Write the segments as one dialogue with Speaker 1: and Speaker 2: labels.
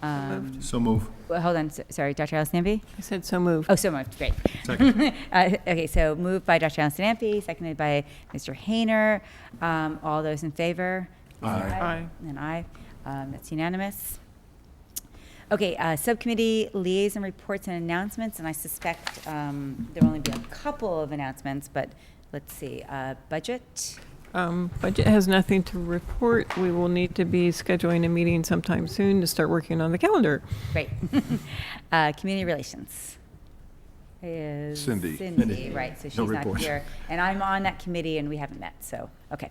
Speaker 1: Um,
Speaker 2: So move.
Speaker 1: well, Hold on, s- sorry, Dr. Allison Ampe?
Speaker 3: I said so moved.
Speaker 1: Oh, so moved, great.
Speaker 2: Second.
Speaker 1: Uh, Okay, so moved by Dr. Allison Ampe, seconded by Mr. Hayner. Um, All those in favor?
Speaker 2: Aye.
Speaker 3: Aye.
Speaker 1: And aye. Um, That's unanimous. Okay, uh, subcommittee liaison reports and announcements, and I suspect um, there will only be a couple of announcements, but let's see. Uh, Budget?
Speaker 3: Um, Budget has nothing to report. We will need to be scheduling a meeting sometime soon to start working on the calendar.
Speaker 1: Great. Uh, Community relations. Is
Speaker 2: Cindy.
Speaker 1: Cindy,
Speaker 2: Cindy.
Speaker 1: right, so she's
Speaker 2: No
Speaker 1: not
Speaker 2: report.
Speaker 1: here. And I'm on that committee and we haven't met, so, okay.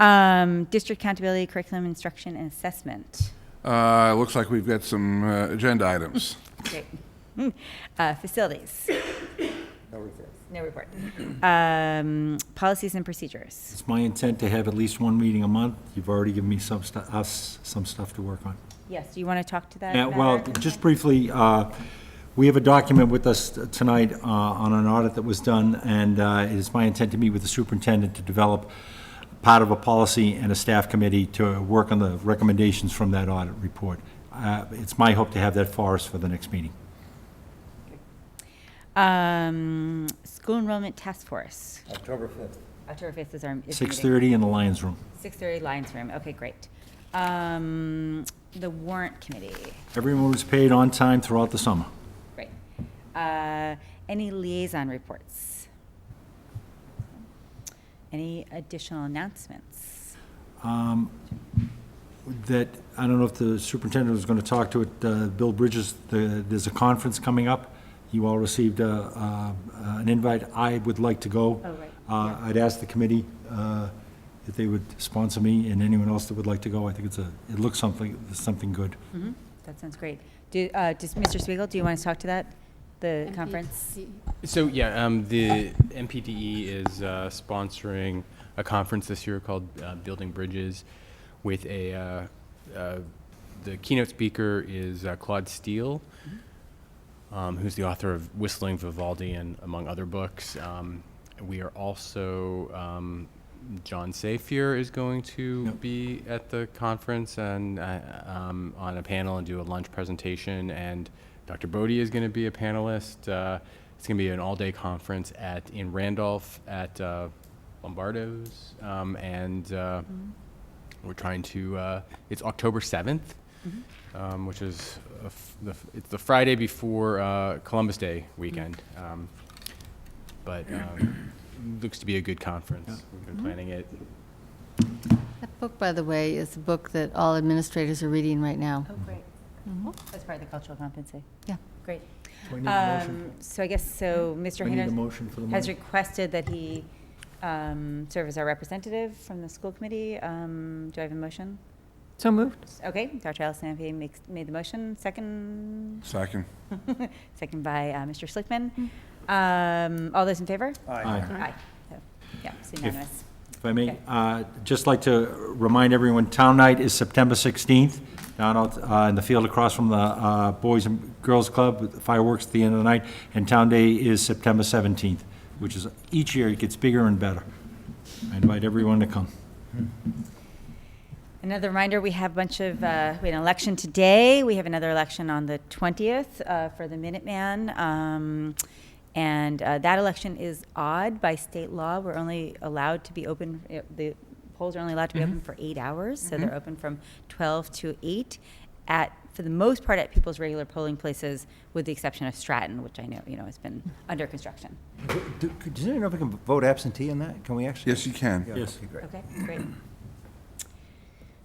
Speaker 1: Um, District accountability, curriculum, instruction, and assessment.
Speaker 4: Uh, looks like we've got some uh, agenda items.
Speaker 1: Great. Uh, Facilities. No report. No report. Policies and procedures.
Speaker 2: It's my intent to have at least one meeting a month. You've already given me some stuff, us, some stuff to work on.
Speaker 1: Yes, do you want to talk to that?
Speaker 2: Yeah, well,
Speaker 1: matter?
Speaker 2: just briefly, uh, we have a document with us tonight uh, on an audit that was done, and uh, it is my intent to meet with the superintendent to develop part of a policy and a staff committee to work on the recommendations from that audit report. Uh, It's my hope to have that for us for the next meeting.
Speaker 1: Um, School enrollment task force.
Speaker 2: October 5th.
Speaker 1: October 5th is our. is the meeting.
Speaker 2: 6:30 in the Lions Room.
Speaker 1: 6:30 Lions Room, okay, great. Um, The warrant committee,
Speaker 2: Everyone was paid on time throughout the summer.
Speaker 1: great. Uh, Any liaison reports? Any additional announcements?
Speaker 2: that, I don't know if the superintendent was going to talk to it, uh, Bill Bridges, the- there's a conference coming up. You all received uh, uh, an invite. I would like to go.
Speaker 1: Oh, right.
Speaker 2: Uh, I'd ask the committee uh, if they would sponsor me and anyone else that would like to go. I think it's a, it looks something, something good.
Speaker 1: Mhm, That sounds great. Do, uh, does, Mr. Spiegel, do you want to talk to that, the conference?
Speaker 5: So yeah, um, the MPDE is uh, sponsoring a conference this year called uh, Building Bridges, with a uh, uh, the keynote speaker is uh, Claude Steele, um, who's the author of Whistling Vivaldi and among other books. Um, we are also um, John Safier is going to
Speaker 2: Yep.
Speaker 5: be at the conference and uh, um, on a panel and do a lunch presentation. And Dr. Bodie is going to be a panelist. Uh, it's going to be an all-day conference at in Randolph at uh, Lombardo's, um, and uh, we're trying to. Uh, it's October seventh um, which is a f- the, f- it's the Friday before uh, Columbus Day weekend. Um, but um, looks to be a good conference. We've been planning it.
Speaker 6: That book, by the way, is a book that all administrators are reading right now.
Speaker 1: Oh, great. Mm-hmm. That's part of the cultural competency.
Speaker 6: Yeah.
Speaker 1: Great.
Speaker 2: Do I need a motion?
Speaker 1: Um, So I guess, so Mr.
Speaker 2: I need a
Speaker 1: Hayner
Speaker 2: motion for the
Speaker 1: has
Speaker 2: morning.
Speaker 1: requested that he um, serve as our representative from the school committee. Um, Do I have a motion?
Speaker 3: So moved.
Speaker 1: Okay, Dr. Allison Ampe makes, made the motion, second,
Speaker 4: Second.
Speaker 1: second by uh, Mr. Schlickman. Um, All those in favor?
Speaker 2: Aye.
Speaker 1: Aye. So, Yeah, it's unanimous.
Speaker 2: If I may,
Speaker 1: Okay.
Speaker 2: uh, just like to remind everyone, Town Night is September 16th, down out uh, in the field across from the uh, Boys and Girls Club, with fireworks at the end of the night, and Town Day is September 17th, which is, each year it gets bigger and better. I invite everyone to come.
Speaker 1: Another reminder, we have a bunch of, uh, we had an election today. We have another election on the 20th uh, for the Minuteman. Um, And uh, that election is odd by state law. We're only allowed to be open, uh, the polls are only allowed to be open for eight hours. So they're open from 12 to 8 at, for the most part, at people's regular polling places, with the exception of Stratton, which I know, you know, has been under construction.
Speaker 7: Do- could- Does anyone know if we can vote absentee on that? Can we actually?
Speaker 4: Yes, you can.
Speaker 7: Yeah,
Speaker 2: Yes.
Speaker 7: okay, great.
Speaker 1: Okay, great.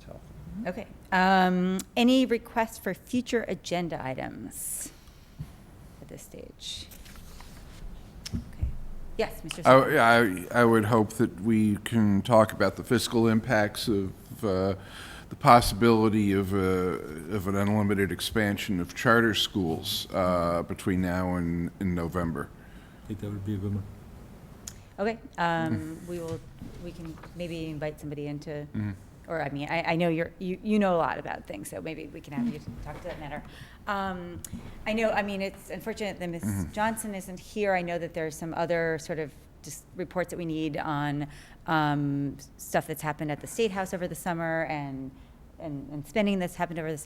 Speaker 7: So-
Speaker 1: Okay. Um, Any requests for future agenda items at this stage? Okay. Yes, Mr.
Speaker 4: I,
Speaker 1: Smith.
Speaker 4: I- I would hope that we can talk about the fiscal impacts of uh, the possibility of, uh, of an unlimited expansion of charter schools uh, between now and, and November.
Speaker 2: I think that would be a good one.
Speaker 1: Okay, um, we will, we can maybe invite somebody into, or, I mean, I, I know you're, you, you know a lot about things, so maybe we can have you talk to that matter. Um, I know, I mean, it's unfortunate that Ms. Johnson isn't here. I know that there's some other sort of just reports that we need on, um, stuff that's happened at the State House over the summer and, and, and spending that's happened over the summer.